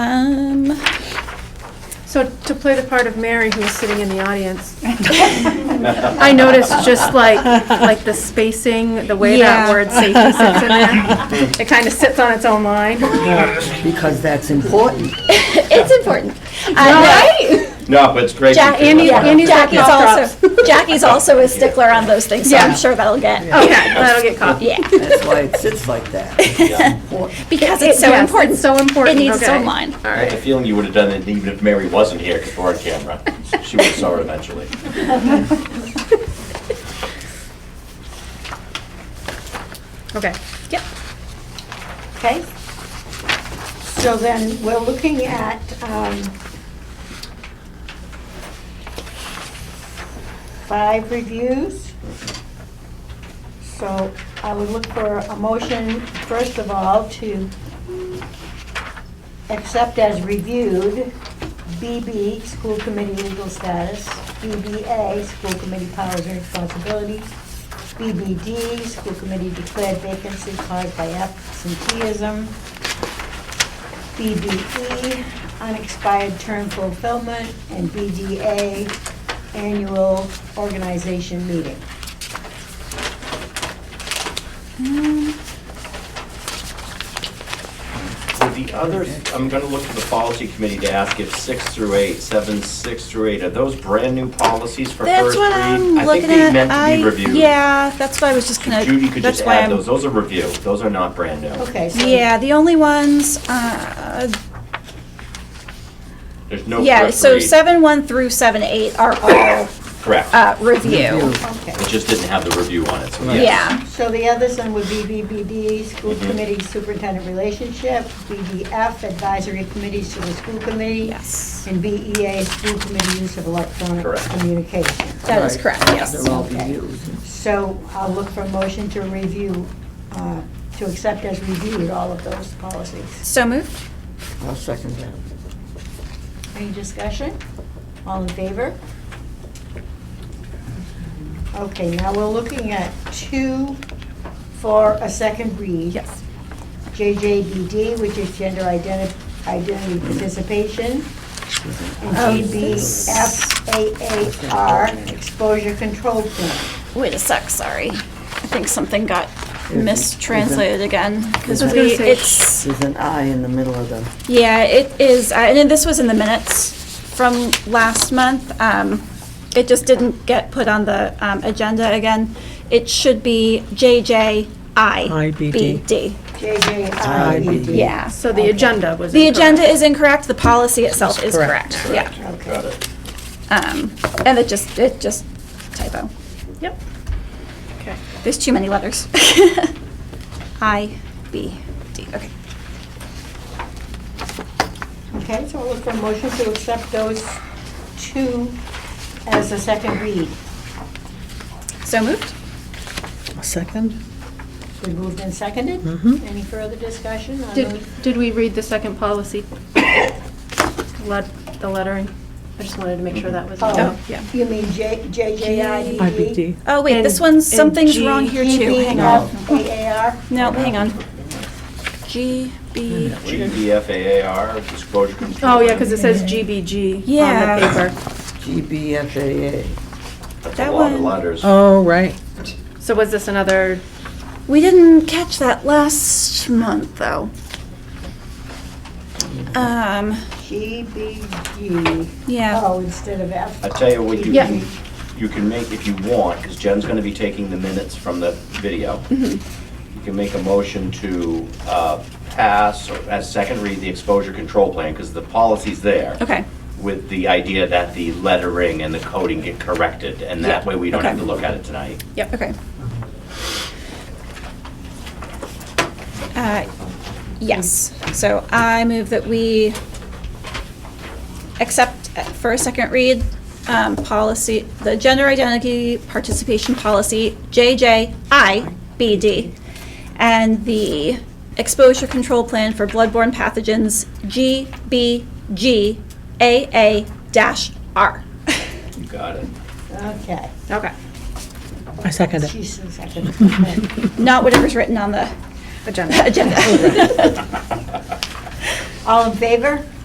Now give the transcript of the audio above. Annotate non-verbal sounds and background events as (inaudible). Um, So to play the part of Mary, who was sitting in the audience, I noticed just like, like the spacing, the way that Yeah. word safety sits in there. It kind of sits on its own line. Because that's important. (laughs) It's (laughs) important. Uh, right? No, but it's great. Jack, to do Andy- that. Andy's got Jackie's cough also, (laughs) Jackie's also a stickler on those things, so Yeah. I'm sure that'll get, Okay, that'll get caught. yeah, That's why it sits like that. um, (laughs) because it's so Yes, important. So important. It needs its okay. own line. All I have right. a feeling you would have done it even if Mary wasn't here, because we're on camera. She would have saw it eventually. Okay. Yep. Okay. So then, we're looking at, um, five reviews. So I would look for a motion, first of all, to accept as reviewed BB, school committee legal status, BBA, school committee powers and responsibilities, BBD, school committee declared vacancy caused by absenteeism, BBE, unexpired term fulfillment, and BDA, annual organization meeting. So the others, I'm gonna look to the policy committee to ask if six through eight, seven, six through eight, are those brand-new policies for that's first read? what I'm I think looking they at. meant to I- be reviewed. Yeah, that's why I was just gonna, Judy could that's just why add I'm. those, those are review, those are not brand new. Okay, so. Yeah, the only ones, uh, There's no yeah, Oh, first so read. seven one through seven eight are all, Correct, uh, review. Okay. it just didn't have the review on it, so yes. Yeah, So the others then would be BBD, school committee superintendent relationship, BDF, advisory committees to the school committee. yes, And BEA, school committee use of electronic Correct. communication. (laughs) that is correct, yes. They're all reviews. So I'll look for a motion to review, uh, to accept as reviewed all of those policies. So moved? I'll second that. Any discussion? All in favor? Okay, now we're looking at two for a second read. Yes. JJBD, which is gender identi- identity participation. Oh, And this- GBFAAR, exposure control plan. Wait a sec, sorry. I think something got mistranslated again, because I was gonna we, say- it's, There's an I in the middle of the, yeah, it is, uh, and then this was in the minutes from last month. Um, It just didn't get put on the um, agenda again. It should be JJIBD. JJIBD. Yeah. So the agenda was. The incorrect. agenda is incorrect, the policy itself is correct, yeah. Got it. Um, And it just, it just typo. Yep. Okay. There's too many letters. (laughs) I, B, D, okay. Okay, so we'll look for a motion to accept those two as a second read. So moved? Second? We moved and seconded. Mm-hmm. Any further discussion on Did, those? did we read the second policy? (coughs) Let, the lettering? I just wanted to make sure that was. Oh, Yeah. You mean J- E? JJIBD? IBD. Oh, wait, this And- one's, and something's G- wrong here too. Hang on. GBFAAR? No, hang on. G, B, GBFAAR, disclosure control. Oh, yeah, because it says GBG on Yeah. the paper. GBFAA. That's a that lot of one- letters. Oh, right. So was this another, we didn't catch that last month, though. Um, GBG. yeah, Oh, instead of F. I tell you what, you Yeah. can, you can make, if you want, because Jen's gonna be taking the minutes from the video. Mm-hmm. You can make a motion to uh, pass, or as second read, the exposure control plan, because the policy's there. okay, With the idea that the lettering and the coding get corrected, and that Yeah, way we don't have okay. to look at it tonight. yep, okay. Uh, Yes, so I move that we accept uh, for a second read, um, policy, the gender identity participation policy, JJIBD, and the exposure control plan for bloodborne pathogens, (laughs) GBGAA-R. You got it. Okay. okay, I second it. She's the second. Okay. (laughs) Not whatever's written on the agenda. agenda. All in favor?